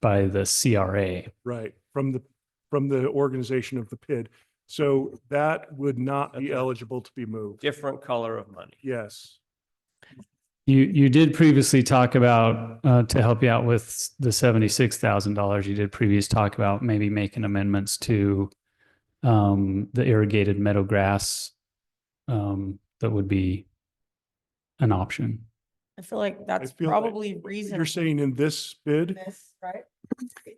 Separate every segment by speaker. Speaker 1: by the CRA.
Speaker 2: Right, from the, from the organization of the PID. So that would not be
Speaker 3: Okay.
Speaker 2: eligible to be moved.
Speaker 3: different color of money.
Speaker 2: Yes,
Speaker 1: You, you did previously talk about, uh, to help you out with the $76,000, you did previous talk about maybe making amendments to, um, the irrigated meadow grass. Um, that would be an option.
Speaker 4: I feel like that's
Speaker 2: feel like
Speaker 4: probably reason.
Speaker 2: you're saying in this bid,
Speaker 4: This, right?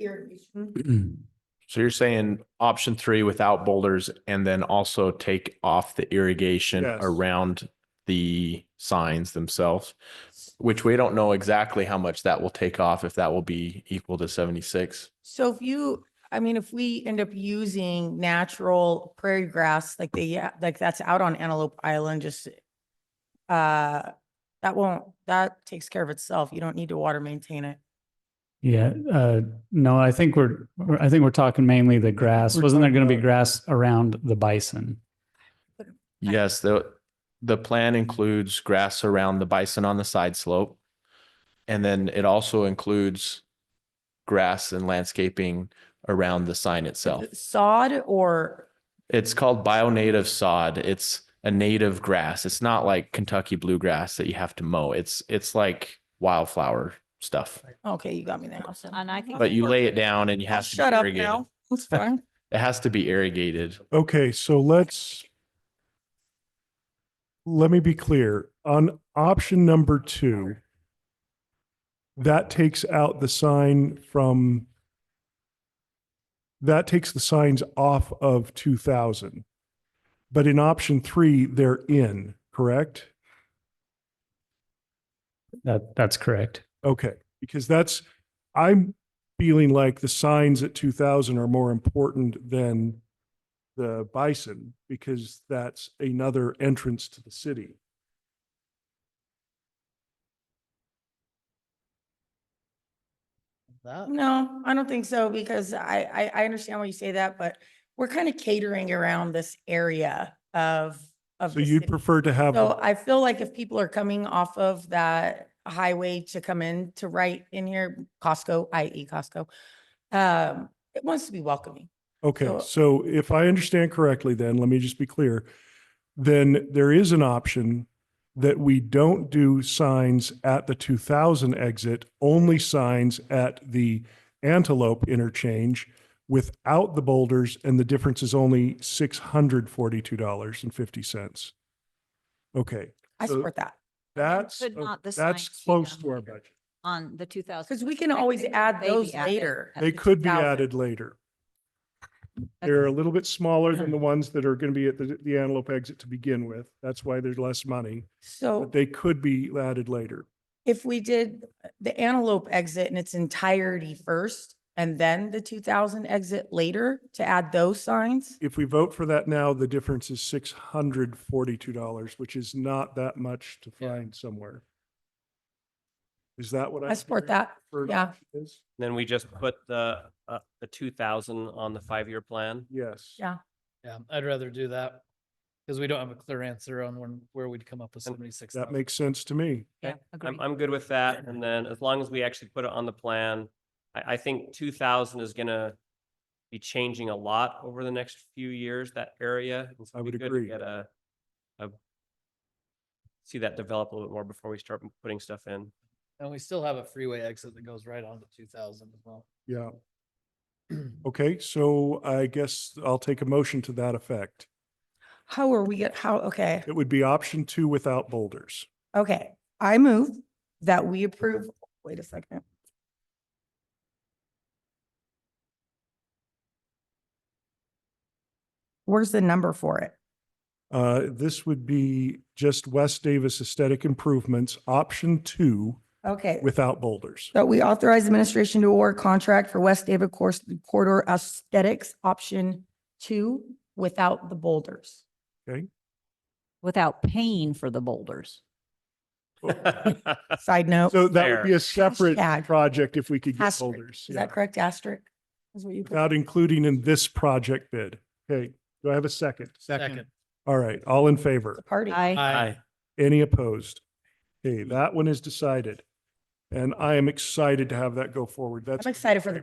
Speaker 4: Irrigation.
Speaker 5: So you're saying option three without boulders and then also take off the irrigation
Speaker 2: Yes.
Speaker 5: around the signs themselves, which we don't know exactly how much that will take off, if that will be equal to seventy-six.
Speaker 4: So if you, I mean, if we end up using natural prairie grass, like they, yeah, like that's out on Antelope Island, just uh, that won't, that takes care of itself. You don't need to water maintain it.
Speaker 1: Yeah, uh, no, I think we're, we're- I think we're talking mainly the grass.
Speaker 2: we're
Speaker 1: Wasn't there
Speaker 2: talking
Speaker 1: going to be
Speaker 2: about-
Speaker 1: grass around the bison?
Speaker 5: Yes, the, the plan includes grass around the bison on the side slope. And then it also includes grass and landscaping around the sign itself.
Speaker 4: Sod or,
Speaker 5: It's called bionative sod. It's a native grass. It's not like Kentucky bluegrass that you have to mow. It's it's like wildflower stuff.
Speaker 4: okay, you got me there. Awesome.
Speaker 6: And I think.
Speaker 5: But you lay it down and you
Speaker 4: I'll
Speaker 5: have to be
Speaker 4: Shut up
Speaker 5: irrigated.
Speaker 4: now. It's fine.
Speaker 5: It has to be irrigated.
Speaker 2: okay, so let's let me be clear, on option number two, that takes out the sign from that takes the signs off of two thousand. But in option three, they're in, correct?
Speaker 1: That, that's correct.
Speaker 2: Okay, because that's, I'm feeling like the signs at two thousand are more important than the bison, because that's another entrance to the city.
Speaker 4: No, I don't think so because I, I, I understand why you say that, but we're kind of catering around this area of, of.
Speaker 2: So
Speaker 4: the
Speaker 2: you'd
Speaker 4: city.
Speaker 2: prefer to have,
Speaker 4: So
Speaker 2: a-
Speaker 4: I feel like if people are coming off of that highway to come in to right in here, Costco, i.e. Costco, um, it wants to be welcoming.
Speaker 2: okay,
Speaker 4: so-
Speaker 2: so if I understand correctly, then, let me just be clear. Then there is an option that we don't do signs at the two thousand exit, only signs at the Antelope interchange without the boulders, and the difference is only six hundred forty-two dollars and fifty cents. Okay,
Speaker 4: I
Speaker 2: So
Speaker 4: support that.
Speaker 2: that's,
Speaker 6: could
Speaker 2: o-
Speaker 6: not the
Speaker 2: that's
Speaker 6: signs be
Speaker 2: close
Speaker 6: done
Speaker 2: to our
Speaker 6: later?
Speaker 2: budget.
Speaker 6: On the two thousand.
Speaker 4: Because we can always add those later.
Speaker 2: They could be added later. They're a little bit smaller than the ones that are going to be at the, the Antelope exit to begin with. That's why there's less money,
Speaker 4: So
Speaker 2: but they could be added later.
Speaker 4: if we did the Antelope exit in its entirety first and then the two thousand exit later to add those signs,
Speaker 2: If we vote for that now, the difference is six hundred forty-two dollars, which is not that much to find somewhere. Is that what I?
Speaker 4: I support that.
Speaker 2: heard for
Speaker 4: yeah.
Speaker 2: option is?
Speaker 3: Then we just put the, uh, the two thousand on the five-year plan.
Speaker 2: Yes.
Speaker 4: Yeah.
Speaker 7: Yeah, I'd rather do that because we don't have a clear answer on when, where we'd come up with
Speaker 3: And
Speaker 7: seventy-six.
Speaker 2: That makes sense to me.
Speaker 6: Yeah,
Speaker 3: I'm,
Speaker 6: agree.
Speaker 3: I'm good with that. And then as long as we actually put it on the plan, I, I think two thousand is gonna be changing a lot over the next few years, that area. and so
Speaker 2: I
Speaker 3: it'd
Speaker 2: would
Speaker 3: be good to
Speaker 2: agree.
Speaker 3: Get a, a, see that develop a little bit more before we start putting stuff in.
Speaker 7: And we still have a freeway exit that goes right on to two thousand as well.
Speaker 2: Yeah. Okay, so I guess I'll take a motion to that effect.
Speaker 4: How are we get, how, okay,
Speaker 2: It would be option two without boulders.
Speaker 4: okay. I move that we approve, wait a second. Where's the number for it?
Speaker 2: Uh, this would be just West Davis aesthetic improvements, option two,
Speaker 4: Okay.
Speaker 2: without boulders.
Speaker 4: That we authorize administration to award contract for West David Course Corridor Aesthetics Option Two without the boulders.
Speaker 6: Without paying for the boulders.
Speaker 4: Side note,
Speaker 2: So that would be
Speaker 3: Fair.
Speaker 2: a separate
Speaker 4: Hashtag.
Speaker 2: project if we could get
Speaker 4: Asterisk.
Speaker 2: boulders.
Speaker 4: is
Speaker 2: yeah,
Speaker 4: that correct? Asterisk? Is what you put?
Speaker 2: Without including in this project bid. Okay, do I have a second?
Speaker 7: Second.
Speaker 2: All right, all in
Speaker 4: It's
Speaker 2: favor?
Speaker 4: a Party.
Speaker 6: I,
Speaker 7: Aye.
Speaker 2: Any opposed? Okay, that one is decided.
Speaker 8: And I am excited to have that go forward. That's
Speaker 2: I'm excited for the